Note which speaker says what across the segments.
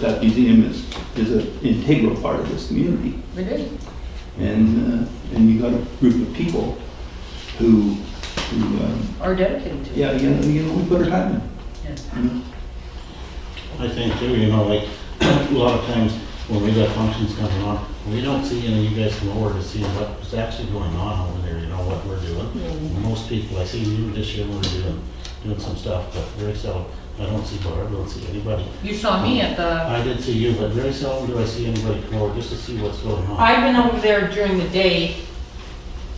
Speaker 1: That museum is, is an integral part of this community.
Speaker 2: It is.
Speaker 1: And, uh, and you got a group of people who, who, um,
Speaker 2: Are dedicated to it.
Speaker 1: yeah, you know, you know, we put our time
Speaker 2: Yeah.
Speaker 1: in. you know.
Speaker 3: I think too, you know, like, a lot of times when we got functions coming on, we don't see any of you guys come over to see what's actually going on over there, you know, what we're
Speaker 2: Mm-hmm.
Speaker 3: doing. Most people, I see you this year, we're doing, doing some stuff, but very seldom, I don't see Barb, I don't see anybody.
Speaker 2: You saw me at the,
Speaker 3: I did see you, but very seldom do I see anybody come over just to see what's going on.
Speaker 4: I've been over there during the day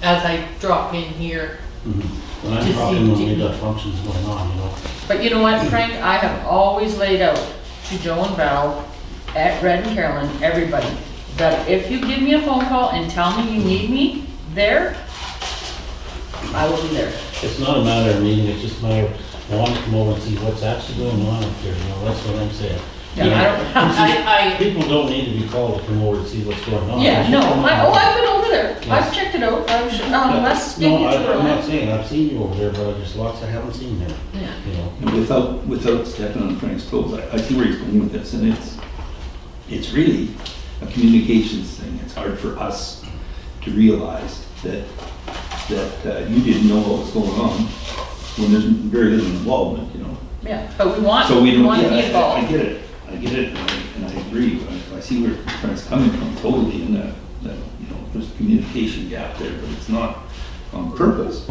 Speaker 4: as I drop in here.
Speaker 3: Mhm. When I'm
Speaker 4: Just
Speaker 3: talking, when we
Speaker 4: see-
Speaker 3: got functions going on, you know,
Speaker 2: but you know what, Frank, I have always laid out to Joe and Val, at Red and Carolyn, everybody, that if you give me a phone call and tell me you need me there, I will be there.
Speaker 3: it's not a matter of needing, it's just a matter of, I want to come over and see what's actually going on up there, you know, that's what I'm saying.
Speaker 2: Yeah, I don't,
Speaker 4: I,
Speaker 3: People don't need to be called to come over to see what's going on.
Speaker 2: yeah, no, I, oh, I've been over there, I've
Speaker 3: Yes.
Speaker 2: checked it out, I've, sh- um, let's get
Speaker 3: No,
Speaker 2: you
Speaker 3: I-
Speaker 2: to
Speaker 3: I'm not
Speaker 2: it.
Speaker 3: saying, I've seen you over there, but there's lots I haven't seen there,
Speaker 2: Yeah.
Speaker 3: you know.
Speaker 1: And without, without stepping on Frank's toes, I, I see where he's going with this, and it's, it's really a communications thing. It's hard for us to realize that, that uh, you didn't know what was going on when there's very little involvement, you know?
Speaker 2: Yeah, but we want,
Speaker 1: So we
Speaker 2: we
Speaker 1: don't,
Speaker 2: want
Speaker 1: yeah,
Speaker 2: to be
Speaker 1: I- I
Speaker 2: involved.
Speaker 1: get it, I get it, and I- and I agree, but I- I see where Frank's coming from totally, and that, that, you know, there's a communication gap there, but it's not on purpose.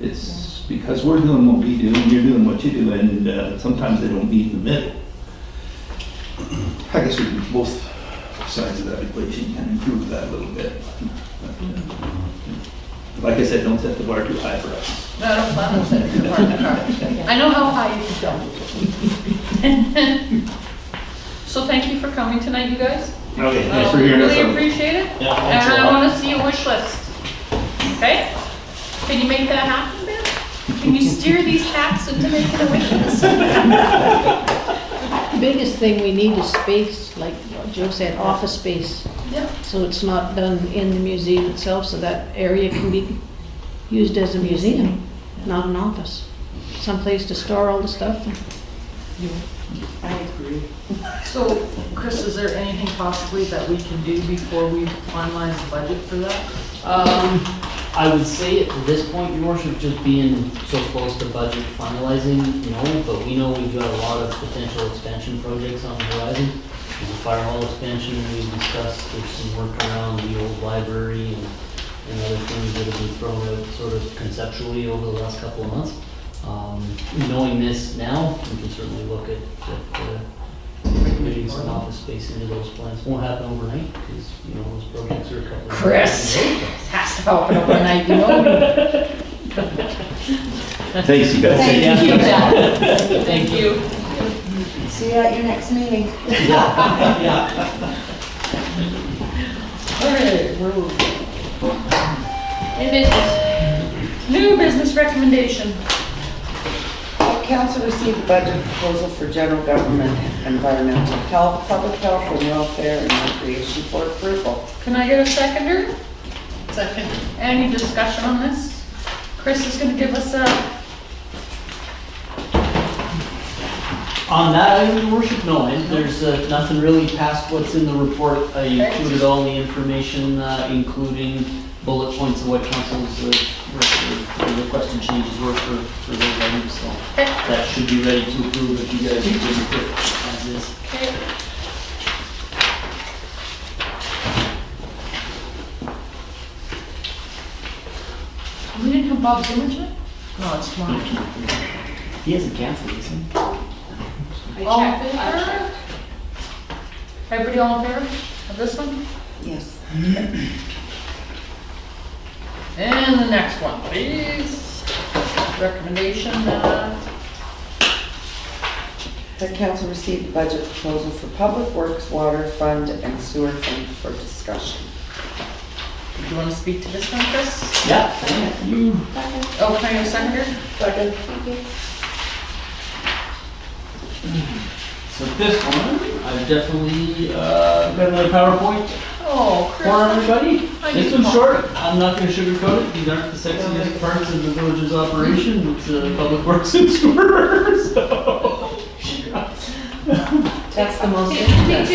Speaker 1: It's because we're doing what we do, and you're doing what you do, and uh, sometimes they don't meet in the middle. I guess we can both sides of that equation can improve that a little bit. But, uh, Like I said, don't set the bar too high for us.
Speaker 2: No, I don't plan on setting it apart in the car. I know how high you can go. So thank you for coming tonight, you guys.
Speaker 1: Okay,
Speaker 2: Uh, we Really appreciate it.
Speaker 3: Yeah, thanks
Speaker 2: And
Speaker 3: a
Speaker 2: I
Speaker 3: lot.
Speaker 2: wanna see a wish list, okay? Can you make that happen, Ben? Can you steer these cats into making a wish list?
Speaker 5: The biggest thing we need is space, like Joe said, office space,
Speaker 2: Yep.
Speaker 5: so it's not done in the museum itself, so that area can be used as a museum, not an office. Someplace to store all the stuff.
Speaker 2: So, Chris, is there anything possibly that we can do before we finalize the budget for that?
Speaker 6: Um, I would say at this point, your worship, just being so close to budget finalizing, no, but we know we've got a lot of potential expansion projects on the horizon. There's a fire hall expansion we discussed, there's some work around the old library and, and other things that have been thrown out sort of conceptually over the last couple of months. Um, knowing this now, we can certainly look at, at, uh, maybe some office space into those plans. Won't happen overnight, because, you know, those projects are a couple of.
Speaker 2: Chris. Has to happen overnight, you know?
Speaker 1: Thanks, you guys.
Speaker 2: Thank you, Jack. Thank you.
Speaker 7: See you at your next meeting.
Speaker 2: Alright, we're moving. New business. New business recommendation.
Speaker 7: Council received the budget proposal for general government, environmental health, public health, and welfare and recreation for approval.
Speaker 2: Can I get a seconder? Second. Any discussion on this? Chris is gonna give us a,
Speaker 6: On that item, your worship, no, and there's uh, nothing really past what's in the report. I included all the information, uh, including bullet points of what council's uh, re- re- requested changes were for, for those items, so
Speaker 2: Okay.
Speaker 6: that should be ready to approve if you guys agree with it as is.
Speaker 2: okay, we didn't have Bob's image yet? No, it's tomorrow.
Speaker 6: He hasn't canceled, has he?
Speaker 2: All in favor? Everybody all in favor of this one?
Speaker 7: Yes.
Speaker 2: And the next one, please. Recommendation, uh,
Speaker 7: The council received the budget proposal for public works, water fund, and sewer fund for discussion.
Speaker 2: do you want to speak to this one, Chris?
Speaker 6: Yeah.
Speaker 2: Oh, can I get a seconder?
Speaker 6: So this one, I've definitely, uh, got another PowerPoint
Speaker 2: Oh,
Speaker 6: for
Speaker 2: Chris,
Speaker 6: everybody.
Speaker 2: I
Speaker 6: This
Speaker 2: need
Speaker 6: one's
Speaker 2: more.
Speaker 6: short, I'm not gonna sugarcoat it, these aren't the sexiest parts of the village's operation, it's uh, public works and sewer, so.
Speaker 8: That's the most.
Speaker 2: Did you think